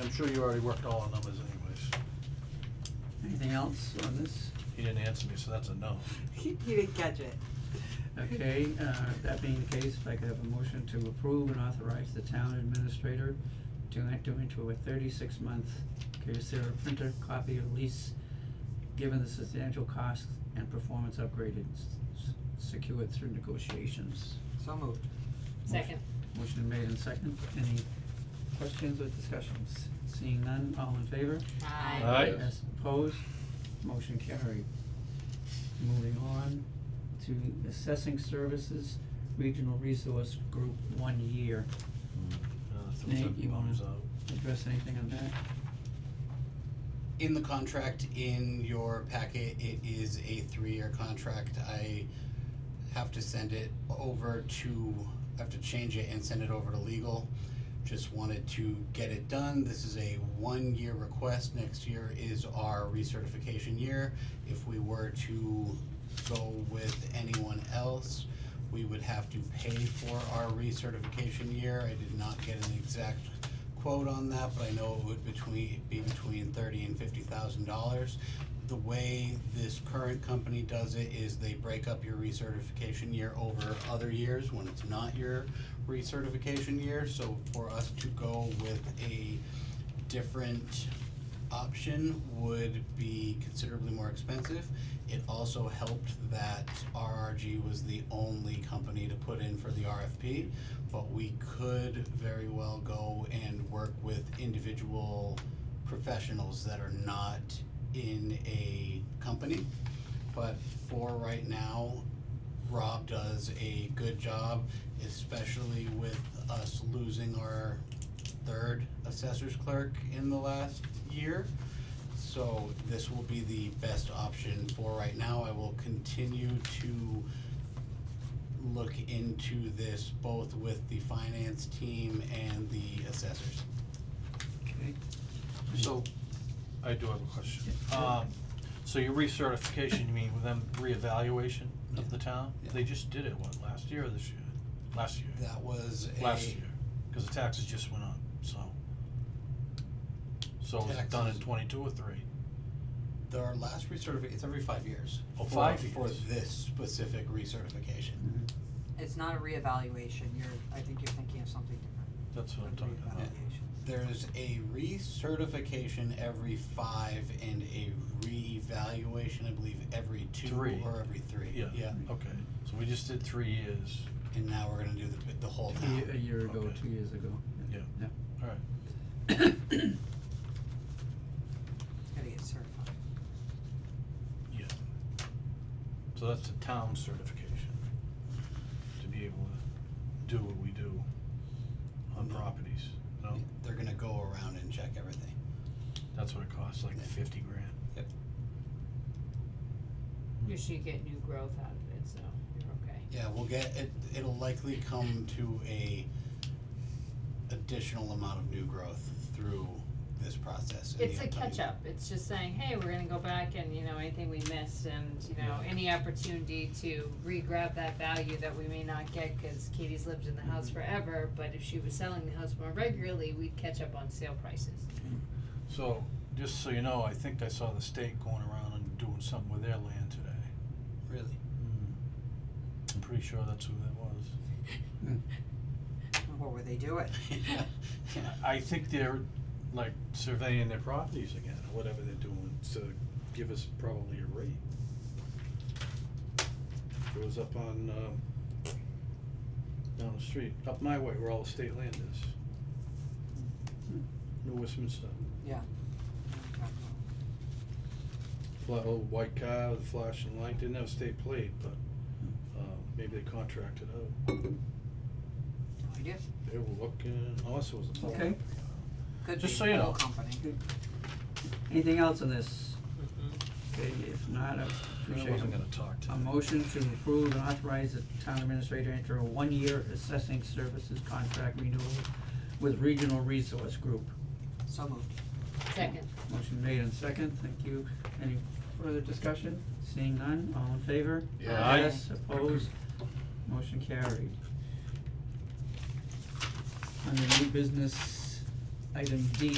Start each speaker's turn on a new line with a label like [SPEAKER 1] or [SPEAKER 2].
[SPEAKER 1] I'm sure you already worked all our numbers anyways.
[SPEAKER 2] Anything else on this?
[SPEAKER 1] He didn't answer me, so that's a no.
[SPEAKER 3] He, he didn't catch it.
[SPEAKER 2] Okay, uh, that being the case, if I could have a motion to approve and authorize the town administrator to enter into a thirty-six month Kyocera printer copy of lease, given the substantial costs and performance upgraded s- secured through negotiations.
[SPEAKER 3] So moved.
[SPEAKER 4] Second.
[SPEAKER 2] Motion made and second, any questions or discussions? Seeing none, all in favor?
[SPEAKER 4] Aye.
[SPEAKER 1] Aye.
[SPEAKER 2] Yes, opposed, motion carried. Moving on to assessing services, regional resource group, one year.
[SPEAKER 1] Uh, throw
[SPEAKER 2] Nate,
[SPEAKER 1] that
[SPEAKER 2] you wanna-
[SPEAKER 1] bonus out.
[SPEAKER 2] Address anything on that?
[SPEAKER 5] in the contract in your packet it is a three-year contract i have to send it over to i have to change it and send it over to legal just wanted to get it done this is a one-year request next year is our recertification year if we were to go with anyone else we would have to pay for our recertification year i did not get an exact quote on that, but I know it would between, be between thirty and fifty thousand dollars. The way this current company does it is they break up your recertification year over other years when it's not your recertification year. So for us to go with a different option would be considerably more expensive. It also helped that RRG was the only company to put in for the RFP but we could very well go and work with individual professionals that are not in a company. But for right now, Rob does a good job, especially with us losing our third assessor's clerk in the last year. So this will be the best option for right now. I will continue to look into this both with the finance team and the assessors.
[SPEAKER 2] Okay,
[SPEAKER 1] So, I do have a question. Um, so your recertification, you mean with them reevaluation of the town?
[SPEAKER 5] Yeah.
[SPEAKER 1] They just did it, what, last year or this year? Last year,
[SPEAKER 5] That was
[SPEAKER 1] last
[SPEAKER 5] a,
[SPEAKER 1] year, cause the taxes just went up, so. So was it done in
[SPEAKER 5] Taxes.
[SPEAKER 1] twenty-two or three?
[SPEAKER 5] their last recertification, it's every five years.
[SPEAKER 1] Oh,
[SPEAKER 5] for-
[SPEAKER 1] five
[SPEAKER 5] For
[SPEAKER 1] years.
[SPEAKER 5] this specific recertification.
[SPEAKER 2] mhm,
[SPEAKER 3] It's not a reevaluation. You're, I think you're thinking of something different.
[SPEAKER 1] That's what I'm
[SPEAKER 3] than
[SPEAKER 1] talking about.
[SPEAKER 3] reevaluation.
[SPEAKER 5] There's a recertification every five and a reevaluation, I believe, every two
[SPEAKER 1] Three.
[SPEAKER 5] or every three.
[SPEAKER 1] Yeah.
[SPEAKER 5] Yeah,
[SPEAKER 1] Okay, so we just did three years,
[SPEAKER 5] and now we're gonna do the, the whole
[SPEAKER 2] two
[SPEAKER 5] town.
[SPEAKER 2] ye- a year ago,
[SPEAKER 1] Okay.
[SPEAKER 2] two years ago.
[SPEAKER 1] Yeah. alright.
[SPEAKER 3] It's gotta get certified.
[SPEAKER 1] Yeah. So that's a town certification, to be able to do what we do on
[SPEAKER 5] No.
[SPEAKER 1] properties, no?
[SPEAKER 5] They're gonna go around and check everything.
[SPEAKER 1] That's what it costs, like
[SPEAKER 5] Yeah.
[SPEAKER 1] fifty grand.
[SPEAKER 4] You should get new growth out of it, so you're okay.
[SPEAKER 5] Yeah, we'll get, it, it'll likely come to a additional amount of new growth through this process. in the
[SPEAKER 4] It's a
[SPEAKER 5] upcoming-
[SPEAKER 4] catch up, it's just saying, hey, we're gonna go back and, you know, anything we missed and, you know, any opportunity to re-grab that value that we may not get, cause Katie's lived in the house forever, but if she was selling the house more regularly, we'd catch up on sale prices.
[SPEAKER 1] So, just so you know, I think I saw the state going around and doing something with their land today.
[SPEAKER 5] Really? Hmm.
[SPEAKER 1] I'm pretty sure that's who that was.
[SPEAKER 3] What would they do it?
[SPEAKER 1] I I think they're like surveying their properties again, or whatever they're doing, to give us probably a rate. It was up on, um, down the street, up my way where all the state land is. New Westminster.
[SPEAKER 3] Yeah.
[SPEAKER 1] fla- old white car, the flashing light, didn't have a state plate, but, um, maybe they contracted out.
[SPEAKER 3] No idea.
[SPEAKER 1] They were looking, oh, this was a.
[SPEAKER 2] Okay.
[SPEAKER 3] Could be
[SPEAKER 1] Just so you
[SPEAKER 3] the whole
[SPEAKER 1] know.
[SPEAKER 3] company.
[SPEAKER 2] Anything else on this? Okay, if not, I appreciate
[SPEAKER 1] I wasn't
[SPEAKER 2] a-
[SPEAKER 1] gonna talk to
[SPEAKER 2] A
[SPEAKER 1] them.
[SPEAKER 2] motion to approve and authorize the town administrator to enter a one-year assessing services contract renewal with Regional Resource Group.
[SPEAKER 3] So moved.
[SPEAKER 4] Second,
[SPEAKER 2] Motion made and second, thank you. Any further discussion? Seeing none, all in favor?
[SPEAKER 1] Yeah. Aye.
[SPEAKER 2] Yes, opposed, motion carried. Under new business, item D,